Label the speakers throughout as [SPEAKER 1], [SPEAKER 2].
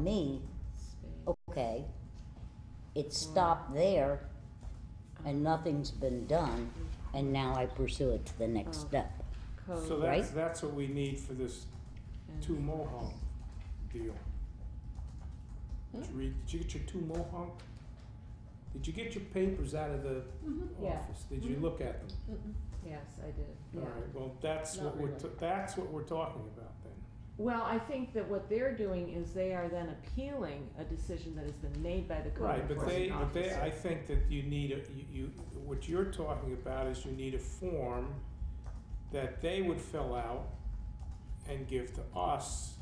[SPEAKER 1] me,
[SPEAKER 2] Spain.
[SPEAKER 3] Oh,
[SPEAKER 1] okay, it stopped there and nothing's been done, and now I pursue it to the next
[SPEAKER 2] Oh.
[SPEAKER 1] step.
[SPEAKER 2] Code
[SPEAKER 3] So that's, that's what we need for this
[SPEAKER 2] and-
[SPEAKER 3] two mohawk deal. Did you read, did you get your two mohawk? Did you get your papers out of the
[SPEAKER 2] Mm-hmm, Yeah.
[SPEAKER 3] office? Did you look at them?
[SPEAKER 2] Yes, I did, yeah.
[SPEAKER 3] Alright, well, that's
[SPEAKER 2] Not
[SPEAKER 3] what we're,
[SPEAKER 2] really.
[SPEAKER 3] t- that's what we're talking about then.
[SPEAKER 2] Well, I think that what they're doing is they are then appealing a decision that has been made by the code
[SPEAKER 3] Right, but they,
[SPEAKER 2] enforcement
[SPEAKER 3] but they, I
[SPEAKER 2] officer.
[SPEAKER 3] think that you need a, you, you, what you're talking about is you need a form that they would fill out and give to us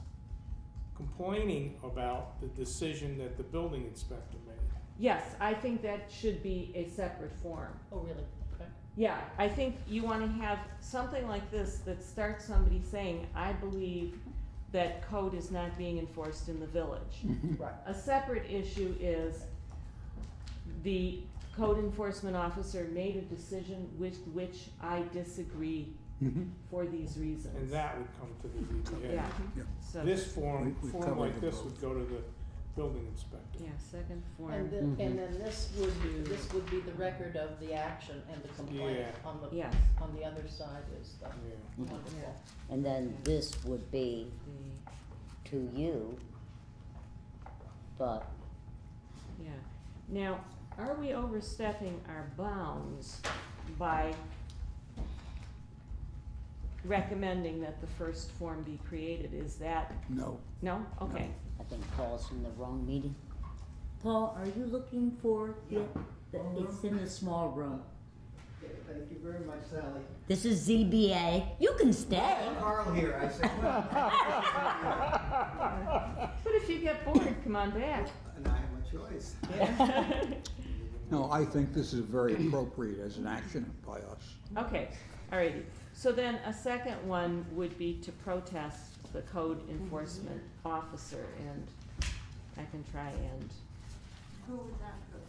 [SPEAKER 3] complaining about the decision that the building inspector made.
[SPEAKER 2] Yes, I think that should be a separate form.
[SPEAKER 4] Oh, really? Okay.
[SPEAKER 2] Yeah, I think you wanna have something like this that starts somebody saying, I believe that code is not being enforced in the village.
[SPEAKER 3] Mm-hmm.
[SPEAKER 4] Right.
[SPEAKER 2] A separate issue is the code enforcement officer made a decision with which I disagree for these reasons.
[SPEAKER 3] And that would come to the ZBA.
[SPEAKER 2] Yeah,
[SPEAKER 5] Yeah.
[SPEAKER 2] so, yeah,
[SPEAKER 3] This form,
[SPEAKER 5] We- we
[SPEAKER 3] form
[SPEAKER 5] covered
[SPEAKER 3] like
[SPEAKER 5] the
[SPEAKER 3] this would go to the building inspector.
[SPEAKER 2] second
[SPEAKER 4] And
[SPEAKER 2] form,
[SPEAKER 4] then,
[SPEAKER 1] Mhm.
[SPEAKER 4] and then this would, be- this would be the record of the action and the complaint
[SPEAKER 3] Yeah.
[SPEAKER 4] on the,
[SPEAKER 2] yes,
[SPEAKER 4] on the other side is the
[SPEAKER 3] Yeah.
[SPEAKER 4] wonderful.
[SPEAKER 1] And then this would be
[SPEAKER 2] the,
[SPEAKER 1] to you, but
[SPEAKER 2] yeah. Now, are we overstepping our bounds by recommending that the first form be created? Is that,
[SPEAKER 5] No,
[SPEAKER 2] no? Okay,
[SPEAKER 1] I think Paul's in the wrong meeting. Paul, are you looking for the, the- it's in the small room.
[SPEAKER 6] Okay, Thank you very much, Sally.
[SPEAKER 1] This is ZBA, you can stay.
[SPEAKER 6] Carl here, I said, well,
[SPEAKER 2] but if you get bored, come on back.
[SPEAKER 6] and I have a choice.
[SPEAKER 5] no, I think this is very appropriate as an action by us.
[SPEAKER 2] Okay, alrighty. So then a second one would be to protest the code enforcement officer and I can try and.
[SPEAKER 7] Who would that go to?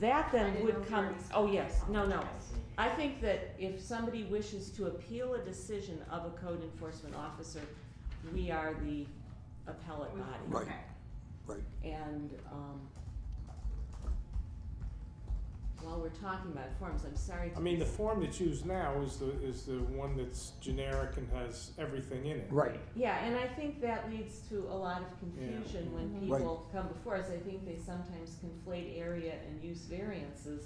[SPEAKER 2] That
[SPEAKER 7] I
[SPEAKER 2] then
[SPEAKER 7] didn't know
[SPEAKER 2] would
[SPEAKER 7] we
[SPEAKER 2] come,
[SPEAKER 7] already
[SPEAKER 2] oh
[SPEAKER 7] spoke
[SPEAKER 2] yes,
[SPEAKER 7] about
[SPEAKER 2] no, no.
[SPEAKER 7] that.
[SPEAKER 2] I think that if somebody wishes to appeal a decision of a code enforcement officer, we are the appellate body.
[SPEAKER 5] Right.
[SPEAKER 7] Okay.
[SPEAKER 5] Right.
[SPEAKER 2] And, um, while we're talking about forms, I'm sorry to.
[SPEAKER 3] I mean, the form that's used now is the, is the one that's generic and has everything in it.
[SPEAKER 5] Right.
[SPEAKER 2] Yeah, and I think that leads to a lot of confusion when
[SPEAKER 5] Right.
[SPEAKER 2] people come before us. I think they sometimes conflate area and use variances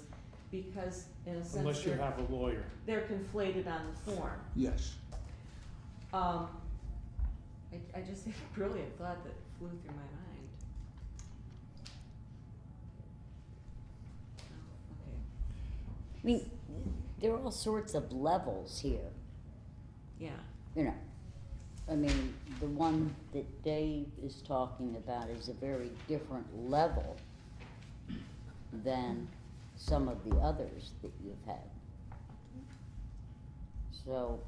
[SPEAKER 2] because in a sense
[SPEAKER 3] Unless you
[SPEAKER 2] they're,
[SPEAKER 3] have a lawyer.
[SPEAKER 2] they're conflated on the form.
[SPEAKER 5] Yes.
[SPEAKER 2] Um, I, I just had a brilliant thought that flew through my mind. Oh, Okay,
[SPEAKER 1] I mean, there are all sorts of levels here,
[SPEAKER 2] yeah.
[SPEAKER 1] you know. I mean, the one that Dave is talking about is a very different level than some of the others that you've had. So,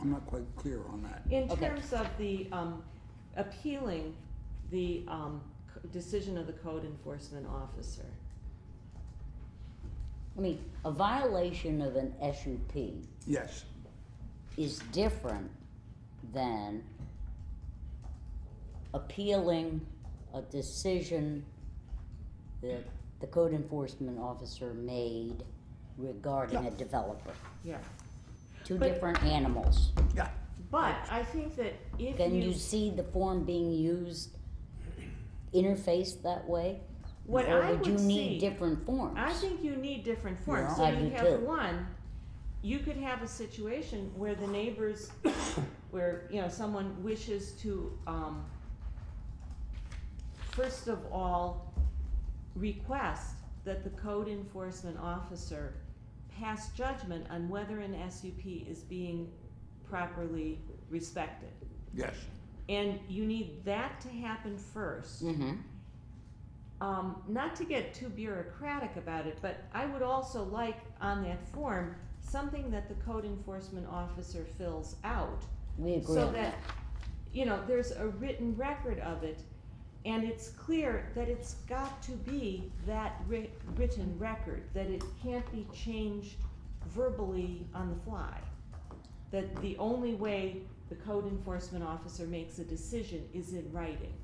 [SPEAKER 5] I'm not quite clear on that.
[SPEAKER 2] In
[SPEAKER 1] Okay.
[SPEAKER 2] terms of the, um, appealing the, um, c- decision of the code enforcement officer.
[SPEAKER 1] I mean, a violation of an SUP
[SPEAKER 5] Yes.
[SPEAKER 1] is different than appealing a decision that the code enforcement officer made regarding a developer.
[SPEAKER 2] Yeah.
[SPEAKER 1] Two
[SPEAKER 2] But-
[SPEAKER 1] different animals.
[SPEAKER 5] Yeah.
[SPEAKER 2] But I think that if
[SPEAKER 1] Can
[SPEAKER 2] you,
[SPEAKER 1] you see the form being used interfaced that way?
[SPEAKER 2] what
[SPEAKER 1] Or
[SPEAKER 2] I would
[SPEAKER 1] would
[SPEAKER 2] see,
[SPEAKER 1] you need different forms?
[SPEAKER 2] I think you need different forms.
[SPEAKER 5] Yeah.
[SPEAKER 2] So
[SPEAKER 1] I
[SPEAKER 2] you
[SPEAKER 1] do
[SPEAKER 2] have
[SPEAKER 1] too.
[SPEAKER 2] one. You could have a situation where the neighbors, where you know someone wishes to, um, first of all, request that the code enforcement officer pass judgment on whether an SUP is being properly respected,
[SPEAKER 5] Yes.
[SPEAKER 2] and you need that to happen first.
[SPEAKER 1] Mm-hmm.
[SPEAKER 2] um, not to get too bureaucratic about it, but I would also like on that form something that the code enforcement officer fills out
[SPEAKER 1] We agree
[SPEAKER 2] so
[SPEAKER 1] on
[SPEAKER 2] that,
[SPEAKER 1] that.
[SPEAKER 2] you know, there's a written record of it and it's clear that it's got to be that writ- written record, that it can't be changed verbally on the fly. That the only way the code enforcement officer makes a decision is in writing.